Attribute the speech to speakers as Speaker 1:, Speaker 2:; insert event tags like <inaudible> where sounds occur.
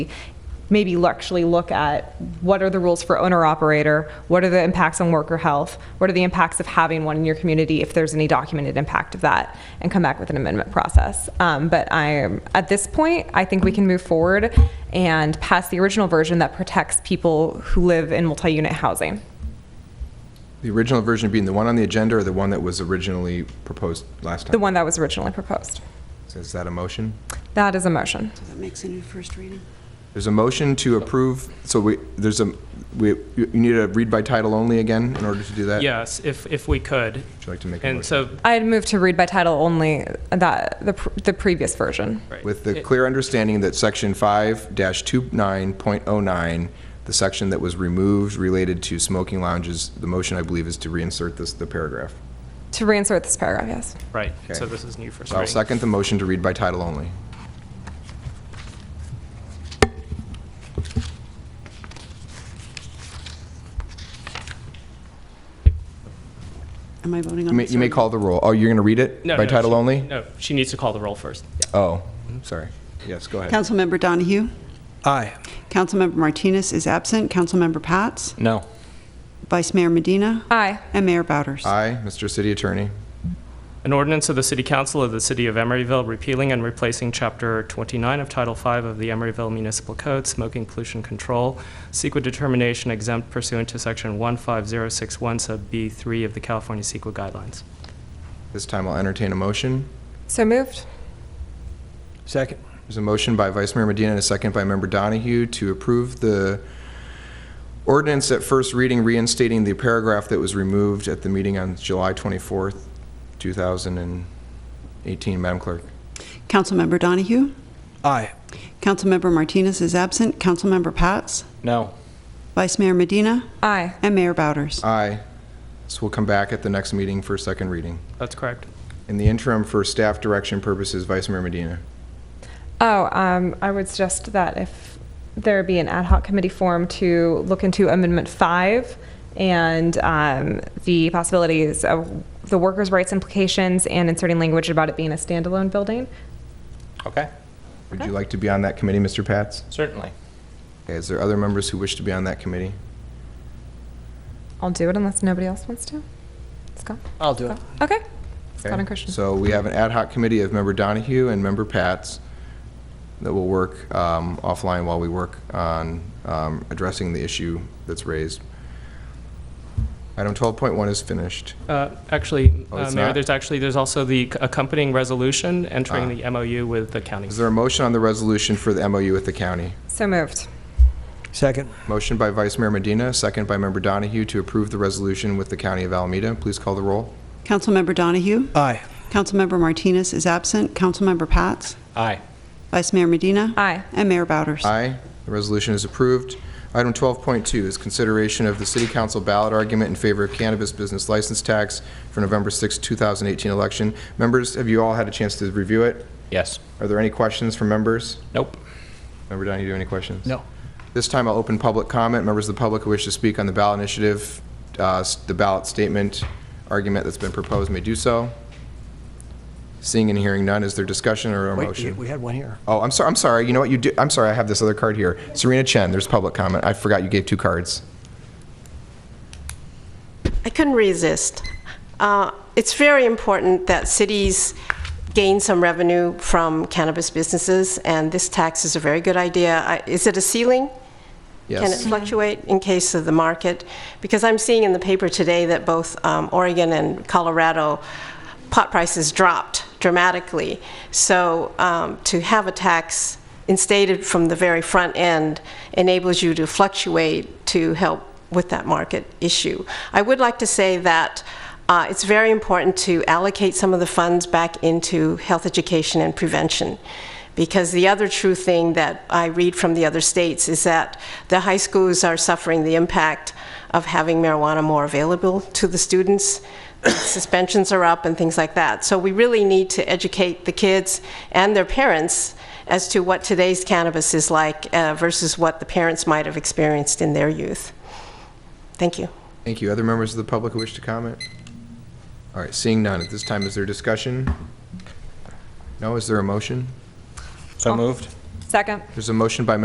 Speaker 1: maybe l- actually look at what are the rules for owner-operator? What are the impacts on worker health? What are the impacts of having one in your community if there's any documented impact of that? And come back with an amendment process. Um, But I, am at this point, I think we can move forward and pass the original version that protects people who live in multi-unit housing.
Speaker 2: The original version being the one on the agenda or the one that was originally proposed last time?
Speaker 1: The one that was originally proposed.
Speaker 2: So Is that a motion?
Speaker 1: That is a motion.
Speaker 3: That makes it a first reading.
Speaker 2: There's a motion to approve, so we, there's a, we, you you need a read by title only again in order to do that?
Speaker 4: Yes, if, if we could.
Speaker 2: Uh, Would you like to make a motion?
Speaker 4: And so,
Speaker 1: I'd move to read by title only that, the, pr- the previous version.
Speaker 4: right.
Speaker 2: With the
Speaker 4: It-
Speaker 2: clear understanding that section five dash two nine point oh nine, the section that was removed related to smoking lounges, the motion, I believe, is to reinsert this, the paragraph.
Speaker 1: To reinsert this paragraph, yes.
Speaker 4: Right,
Speaker 2: Okay.
Speaker 4: so this is new first
Speaker 2: So I'll
Speaker 4: reading.
Speaker 2: second the motion to read by title only.
Speaker 3: Am I voting
Speaker 2: You
Speaker 3: on
Speaker 2: may,
Speaker 3: this?
Speaker 2: you may call the roll. Oh, you're going to read it?
Speaker 4: No,
Speaker 2: By
Speaker 4: no,
Speaker 2: title
Speaker 4: she-
Speaker 2: only?
Speaker 4: No, she needs to call the roll first.
Speaker 2: Oh, sorry. Yes, go ahead.
Speaker 3: Councilmember Donahue?
Speaker 5: Aye.
Speaker 3: Councilmember Martinez is absent. Councilmember Pats?
Speaker 5: No.
Speaker 3: Vice Mayor Medina?
Speaker 1: Aye.
Speaker 3: And Mayor Bowders?
Speaker 2: Aye, Mr. City Attorney.
Speaker 4: An ordinance of the City Council of the City of Emeryville repealing and replacing Chapter 29 of Title V of the Emeryville Municipal Code, Smoking Pollution Control, CEQA determination exempt pursuant to Section 15061 Sub B3 of the California CEQA Guidelines.
Speaker 2: This time I'll entertain a motion.
Speaker 1: So moved.
Speaker 5: Second.
Speaker 2: There's a motion by Vice Mayor Medina and a second by Member Donahue to approve the ordinance at first reading reinstating the paragraph that was removed at the meeting on July 24th, 2018. Madam Clerk.
Speaker 3: Councilmember Donahue?
Speaker 5: Aye.
Speaker 3: Councilmember Martinez is absent. Councilmember Pats?
Speaker 5: No.
Speaker 3: Vice Mayor Medina?
Speaker 1: Aye.
Speaker 3: And Mayor Bowders?
Speaker 2: Aye. So we'll come back at the next meeting for a second reading.
Speaker 4: That's correct.
Speaker 2: In the interim, for staff direction purposes, Vice Mayor Medina.
Speaker 1: Oh, um, I would suggest that if there be an ad hoc committee form to look into Amendment 5 and um, the possibilities of the workers' rights implications and inserting language about it being a standalone building.
Speaker 5: Okay,
Speaker 2: Would you like to be on that committee, Mr. Pats?
Speaker 5: certainly.
Speaker 2: Okay, Is there other members who wish to be on that committee?
Speaker 1: I'll do it unless nobody else wants to. Scott?
Speaker 5: I'll do it.
Speaker 1: Okay.
Speaker 2: Okay,
Speaker 1: Scott and Christian.
Speaker 2: So we have an ad hoc committee of member Donahue and member Pats that will work um, offline while we work on um, addressing the issue that's raised. Item 12.1 is finished.
Speaker 4: Uh, Actually,
Speaker 2: Oh,
Speaker 4: uh,
Speaker 2: it's
Speaker 4: Mayor,
Speaker 2: not?
Speaker 4: there's actually, there's also the accompanying resolution
Speaker 2: Ah.
Speaker 4: entering the MOU with the county.
Speaker 2: Is there a motion on the resolution for the MOU with the county?
Speaker 1: So moved.
Speaker 5: Second.
Speaker 2: Motion by Vice Mayor Medina, second by member Donahue to approve the resolution with the county of Alameda. Please call the roll.
Speaker 3: Councilmember Donahue?
Speaker 5: Aye.
Speaker 3: Councilmember Martinez is absent. Councilmember Pats?
Speaker 5: Aye.
Speaker 3: Vice Mayor Medina?
Speaker 1: Aye.
Speaker 3: And Mayor Bowders?
Speaker 2: Aye. The resolution is approved. Item 12.2 is consideration of the city council ballot argument in favor of cannabis business license tax for November 6, 2018 election. Members, have you all had a chance to review it?
Speaker 5: Yes.
Speaker 2: Are there any questions from members?
Speaker 5: Nope.
Speaker 2: Member Donahue, do you have any questions? This time I'll open public comment. Members of the public who wish to speak on the ballot initiative, uh, s- the ballot statement argument that's been proposed may do so. Seeing and hearing none, is there discussion or a
Speaker 5: Wait,
Speaker 2: motion?
Speaker 5: we had one here.
Speaker 2: Oh, I'm sorry. I'm sorry. You know what? You do. I'm sorry. I have this other card here. Serena Chen. There's public comment. I forgot you gave two cards.
Speaker 6: I couldn't resist. Uh, It's very important that cities gain some revenue from cannabis businesses, and this tax is a very good idea. I- Is it a ceiling? Can it
Speaker 2: Yes.
Speaker 6: fluctuate in case of the market? Because I'm seeing in the paper today that both um, Oregon and Colorado pot prices dropped dramatically. So um, to have a tax instated from the very front end enables you to fluctuate to help with that market issue. I would like to say that uh, it's very important to allocate some of the funds back into health education and prevention. Because the other true thing that I read from the other states is that the high schools are suffering the impact of having marijuana more available to the students. <coughs> Suspensions are up and things like that. So we really need to educate the kids and their parents as to what today's cannabis is like uh, versus what the parents might have experienced in their youth. Thank you.
Speaker 2: Thank you. Other members of the public who wish to comment? All right. Seeing none. At this time, is there discussion? No. Is there a motion?
Speaker 5: So moved.
Speaker 1: Second.
Speaker 2: There's a motion by